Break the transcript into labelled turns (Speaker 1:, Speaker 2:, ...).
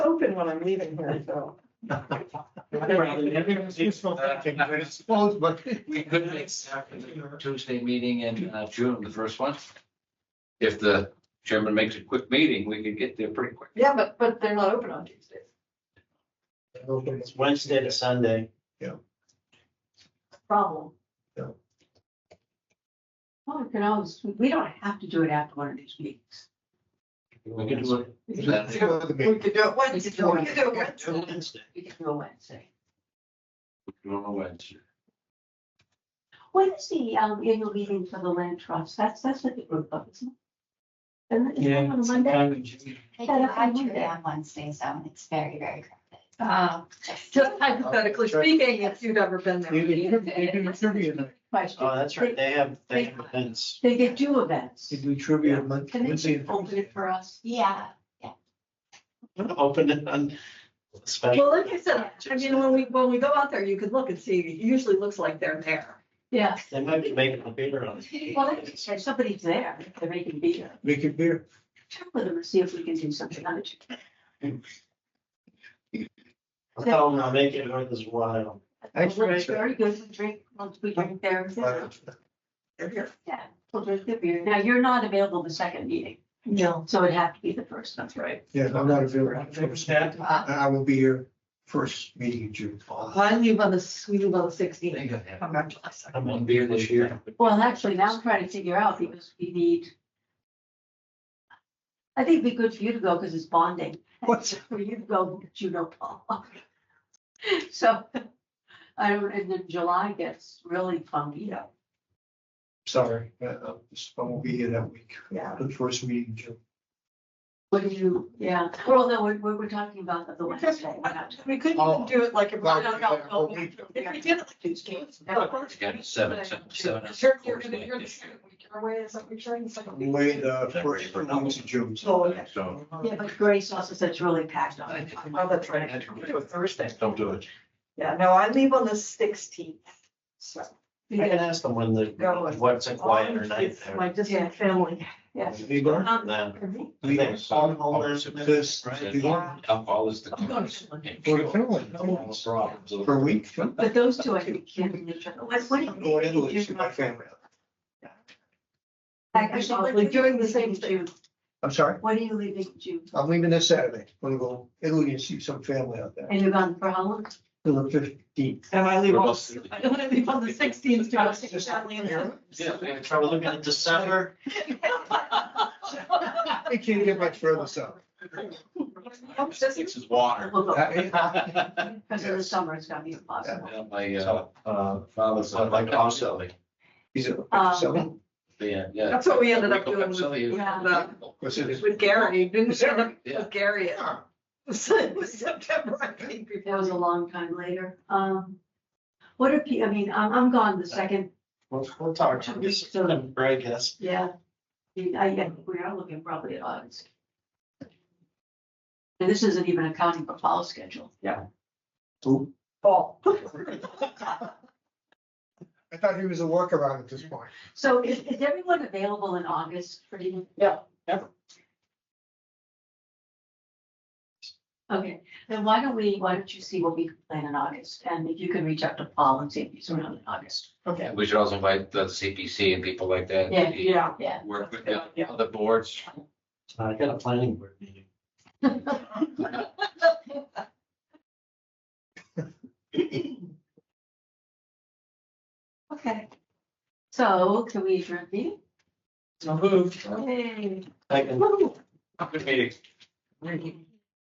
Speaker 1: when I'm leaving here, so.
Speaker 2: uh, Everyone's useful thinking, but it's supposed, but.
Speaker 3: We could make the Tuesday meeting in uh, June, the first one. If the chairman makes a quick meeting, we could get there pretty quick.
Speaker 1: Yeah, but, but they're not open on Tuesdays.
Speaker 4: It's Wednesday to Sunday.
Speaker 1: Problem.
Speaker 2: Yeah.
Speaker 5: Well, we Oh, can always, we don't have to do it after one of these meetings.
Speaker 3: We could do it.
Speaker 5: We can
Speaker 3: Wednesday.
Speaker 2: Before the
Speaker 1: We
Speaker 2: meeting.
Speaker 1: could do it Wednesday,
Speaker 5: It's one
Speaker 1: we
Speaker 5: of
Speaker 1: could do it
Speaker 5: the-
Speaker 1: Wednesday.
Speaker 4: Wednesday.
Speaker 5: we can do it Wednesday.
Speaker 3: We could do it on Wednesday.
Speaker 5: When is the um, annual meeting for the land trust? That's, that's what the group of, isn't it? Isn't it? Is that on a Monday?
Speaker 6: They do
Speaker 5: Yeah, that's
Speaker 6: have
Speaker 5: what I
Speaker 6: jury
Speaker 5: wondered.
Speaker 6: on Wednesday, so it's very, very crowded.
Speaker 1: Uh,
Speaker 6: Just-
Speaker 1: Just hypothetically speaking, if you've ever been
Speaker 2: You
Speaker 1: there.
Speaker 2: can, you can trivia night,
Speaker 5: Question.
Speaker 4: Oh, that's right. They have, they have events.
Speaker 5: They get two events.
Speaker 2: you do trivia month.
Speaker 5: Can
Speaker 2: Wednesday
Speaker 5: they
Speaker 2: and
Speaker 5: open
Speaker 2: Thursday.
Speaker 5: it for us?
Speaker 6: Yeah,
Speaker 4: Open it on.
Speaker 1: Well,
Speaker 4: special.
Speaker 1: like I said, I mean, when we, when we go out there, you could look and see, it usually looks like they're there.
Speaker 5: Yeah.
Speaker 4: They might be making a beer on it.
Speaker 5: Well, if somebody's there, they're making beer.
Speaker 2: We could be,
Speaker 5: Check with them and see if we can do something on it.
Speaker 4: I'll tell them I'll make it worth his while.
Speaker 2: Thanks,
Speaker 5: Well,
Speaker 2: Rachel.
Speaker 5: Very good. We drink, once we drink there.
Speaker 1: They're here.
Speaker 5: Yeah, we'll drink the beer. Now, you're not available the second meeting,
Speaker 1: No.
Speaker 5: so it'd have to be the first, that's right.
Speaker 2: yeah, I'm not available. And I will be here first meeting in June.
Speaker 1: I leave on the, we leave on the sixteenth.
Speaker 3: Think of that.
Speaker 1: Come back July second.
Speaker 4: I'm
Speaker 3: One beer this year.
Speaker 5: Well, actually, now I'm trying to figure out because we need. I think it'd be good for you to go because it's bonding.
Speaker 2: What's-
Speaker 5: For you to go, because you know Paul. So, I don't, and then July gets really funky.
Speaker 2: Sorry, uh, uh, I won't be here that week.
Speaker 1: Yeah.
Speaker 2: The first meeting in June.
Speaker 5: What do you, yeah, well, no, we're, we're we're talking about the- the Wednesday. we're not-
Speaker 1: We couldn't
Speaker 2: Oh.
Speaker 1: even do it like. a-
Speaker 2: Well,
Speaker 5: no, no,
Speaker 2: yeah, whole
Speaker 5: no.
Speaker 2: uh, week.
Speaker 1: If we did it like these games.
Speaker 3: Again, seven, seven, seven.
Speaker 1: Sure, you're gonna, you're gonna shoot a week away, is that what you're trying to say?
Speaker 2: Way the uh, first, for months in June.
Speaker 1: Oh, yeah.
Speaker 3: So.
Speaker 5: Yeah, but Grace also said it's really packed on. it.
Speaker 1: Oh, that's right. We do it Thursday.
Speaker 3: Don't do it.
Speaker 1: Yeah, no, I leave on the sixteenth, so.
Speaker 4: I can ask them when the, what's a quieter night
Speaker 1: It's
Speaker 4: there.
Speaker 1: My distant family, yeah.
Speaker 2: Hey, Bert?
Speaker 5: Um,
Speaker 4: Then,
Speaker 1: I'm
Speaker 2: We
Speaker 4: They-
Speaker 2: on all this, this, we
Speaker 3: Right.
Speaker 2: want
Speaker 3: Alcohol is the.
Speaker 1: going to.
Speaker 2: for the Finland,
Speaker 3: All the problems of-
Speaker 2: for a week. I'm
Speaker 5: But those two, I think, can't each other. What, what do you?
Speaker 2: going to Italy to see my family.
Speaker 1: Actually, doing the same thing.
Speaker 2: I'm sorry,
Speaker 5: When are you leaving June?
Speaker 2: I'm leaving this Saturday, I'm gonna go Italy and see some family out there,
Speaker 5: And you're gone for how long?
Speaker 2: till the fifteenth.
Speaker 1: And I leave
Speaker 3: We're
Speaker 1: on,
Speaker 3: both-
Speaker 1: I leave on the sixteenth, to our distant family in there.
Speaker 4: Yeah, we have trouble looking at December.
Speaker 2: I can't get much further south.
Speaker 1: I'm just-
Speaker 3: This is water.
Speaker 5: We'll go.
Speaker 3: Yeah,
Speaker 5: Because of the summer, it's gonna be impossible.
Speaker 3: My uh,
Speaker 4: So, uh,
Speaker 3: father's
Speaker 4: so
Speaker 3: son,
Speaker 4: like
Speaker 3: like
Speaker 4: also,
Speaker 3: also,
Speaker 4: like,
Speaker 2: He's a,
Speaker 5: Um,
Speaker 2: so,
Speaker 3: yeah, yeah.
Speaker 1: That's what we ended up
Speaker 3: Michael
Speaker 1: doing with-
Speaker 3: Pepsell, you-
Speaker 5: Yeah.
Speaker 2: what's it?
Speaker 1: With Gary, didn't
Speaker 2: Is that
Speaker 1: stand up
Speaker 3: Yeah.
Speaker 1: with Gary. It
Speaker 2: Yeah.
Speaker 1: was it was September, I think,
Speaker 5: That
Speaker 1: before.
Speaker 5: was a long time later. Um, what if, you- I mean, I'm, I'm gone the second,
Speaker 4: we'll, we'll talk to you soon, I guess.
Speaker 5: yeah. I, mean, I, yeah, we are looking probably at August. And this isn't even accounting for fall schedule.
Speaker 2: Who?
Speaker 1: fall.
Speaker 2: I thought he was a workaround at this point.
Speaker 5: So is, is everyone available in August for you?
Speaker 1: Yeah, everyone.
Speaker 5: Okay, then why don't we, why don't you see what we can plan in August, and if you can reach out to Paul and see if he's around in August.
Speaker 1: Okay.
Speaker 3: We should also invite the CPC and people like that.
Speaker 5: Yeah,
Speaker 1: Yeah.
Speaker 5: Yeah.
Speaker 3: Work with the other boards.
Speaker 4: I got a planning board meeting.
Speaker 5: Okay. So can we adjourn the meeting?
Speaker 1: So moved.
Speaker 5: Yay.
Speaker 4: I can
Speaker 3: Good meeting.